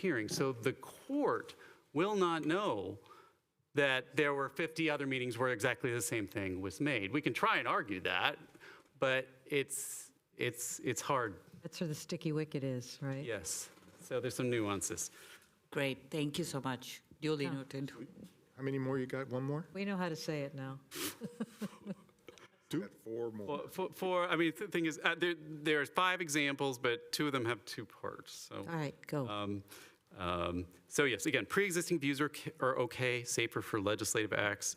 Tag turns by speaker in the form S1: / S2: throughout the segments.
S1: hearing. So the court will not know that there were 50 other meetings where exactly the same thing was made. We can try and argue that, but it's, it's, it's hard,
S2: That's where the sticky wicket is, right?
S1: yes. So there's some nuances.
S3: Great, thank you so much. Duly noted.
S4: How many more you got? One more?
S2: We know how to say it now.
S4: Two. Four more.
S1: Well, For, for, I mean, the thing is, uh, there, there's five examples, but two of them have two parts, so.
S2: All right, go.
S1: Um, um, So yes, again, pre-existing views are, c- are okay, safer for legislative acts.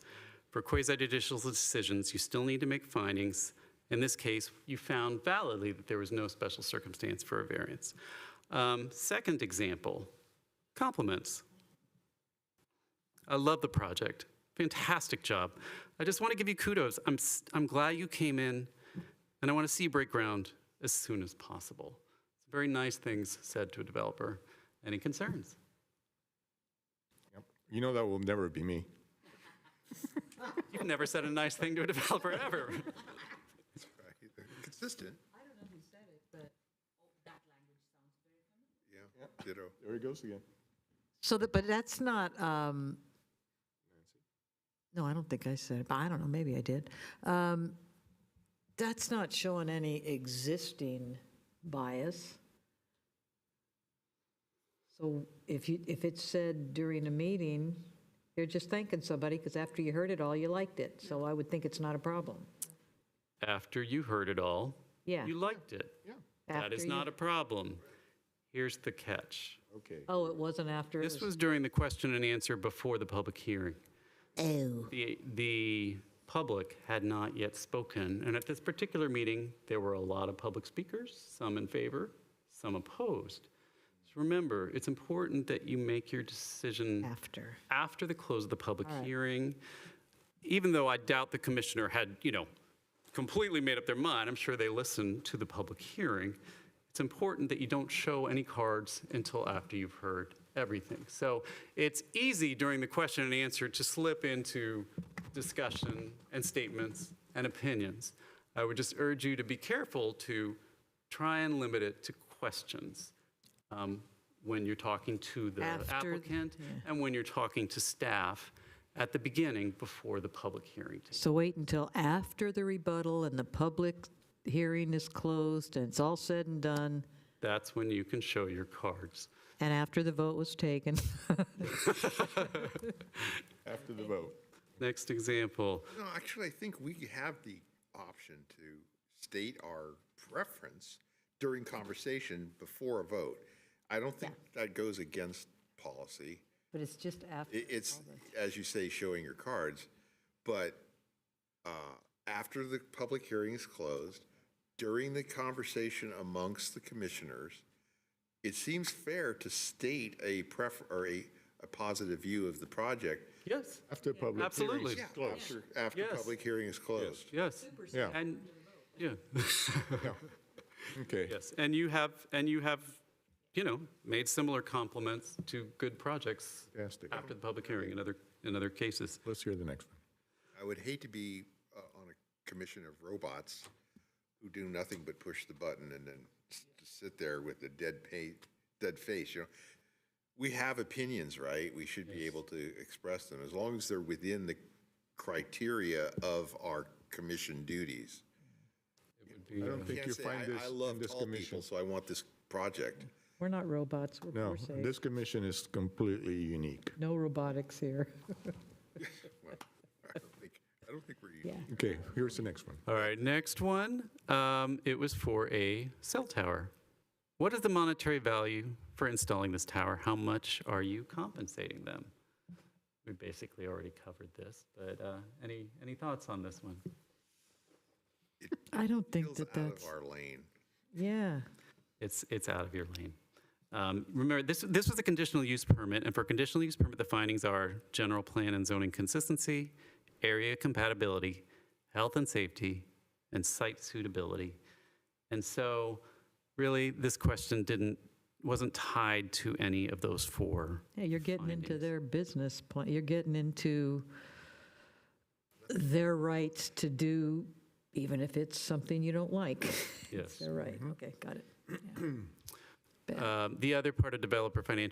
S1: For quasi-judicial decisions, you still need to make findings. In this case, you found validly that there was no special circumstance for a variance. Um, Second example, compliments. I love the project. Fantastic job. I just want to give you kudos. I'm, s- I'm glad you came in, and I want to see you break ground as soon as possible. Very nice things said to a developer. Any concerns?
S4: You know that will never be me.
S1: You've never said a nice thing to a developer ever.
S5: Consistent. Yeah, ditto.
S4: There he goes again.
S2: So, that, but that's not, um, no, I don't think I said it, but I don't know, maybe I did. Um, That's not showing any existing bias. So if you, if it's said during a meeting, you're just thanking somebody because after you heard it all, you liked it. So I would think it's not a problem.
S1: After you heard it all,
S2: Yeah.
S1: you liked it. That
S2: after
S1: is
S2: you-
S1: not a problem. Here's the catch.
S4: Okay.
S2: Oh, it wasn't after? it
S1: This was during the question and answer before the public hearing.
S3: Oh,
S1: The, the public had not yet spoken, and at this particular meeting, there were a lot of public speakers, some in favor, some opposed. So remember, it's important that you make your decision
S2: After.
S1: after the close of the public
S2: All right.
S1: hearing, even though I doubt the commissioner had, you know, completely made up their mind, I'm sure they listened to the public hearing, it's important that you don't show any cards until after you've heard everything. So it's easy during the question and answer to slip into discussion and statements and opinions. I would just urge you to be careful to try and limit it to questions um, when you're talking to the
S2: After-
S1: applicant and when you're talking to staff at the beginning before the public hearing. takes
S2: So wait until after the rebuttal and the public hearing is closed and it's all said and done,
S1: That's when you can show your cards.
S2: and after the vote was taken.
S4: After the vote.
S1: Next example,
S5: No, actually, I think we have the option to state our preference during conversation before a vote. I don't think that goes against policy.
S2: But it's just after.
S5: I- It's, as you say, showing your cards, but uh, after the public hearing is closed, during the conversation amongst the commissioners, it seems fair to state a pref, or a, a positive view of the project
S1: yes,
S4: After public.
S1: absolutely,
S5: after, after
S1: Yes.
S5: public hearing is closed.
S1: yes.
S4: Yeah.
S1: And, yeah,
S4: Okay.
S1: yes, and you have, and you have, you know, made similar compliments to good projects
S4: Fantastic.
S1: after the public hearing in other, in other cases.
S4: Let's hear the next one.
S5: I would hate to be uh, on a commission of robots who do nothing but push the button and then s- just sit there with a dead pa, dead face, you know? We have opinions, right? We should be able to express them, as long as they're within the criteria of our commission duties.
S4: I don't think
S5: Can't
S4: you
S5: say,
S4: find
S5: "I-
S4: this
S5: I
S4: in
S5: love
S4: this
S5: tall people,
S4: commission. Mm.
S5: so I want this project.
S2: We're not robots, we're
S4: No,
S2: we're safe.
S4: this commission is completely unique.
S2: No robotics here.
S5: Well, I don't think, I don't think we're.
S2: Yeah.
S4: Okay, here's the next one.
S1: All right, next one. Um, it was for a cell tower. What is the monetary value for installing this tower? How much are you compensating them? We basically already covered this, but uh, any any thoughts on this one?
S2: I don't think
S5: feels
S2: that
S5: out
S2: that's,
S5: of our lane.
S2: yeah.
S1: It's, it's out of your lane. Um, Remember, this, this was a conditional use permit, and for a conditional use permit, the findings are general plan and zoning consistency, area compatibility, health and safety, and site suitability. And so, really, this question didn't, wasn't tied to any of those four.
S2: Yeah, you're getting into their business plan, you're getting into their rights to do, even if it's something you don't like.
S1: Yes.
S5: Mm-hmm.
S2: They're right, okay, got it.
S1: Um, The other part of developer financial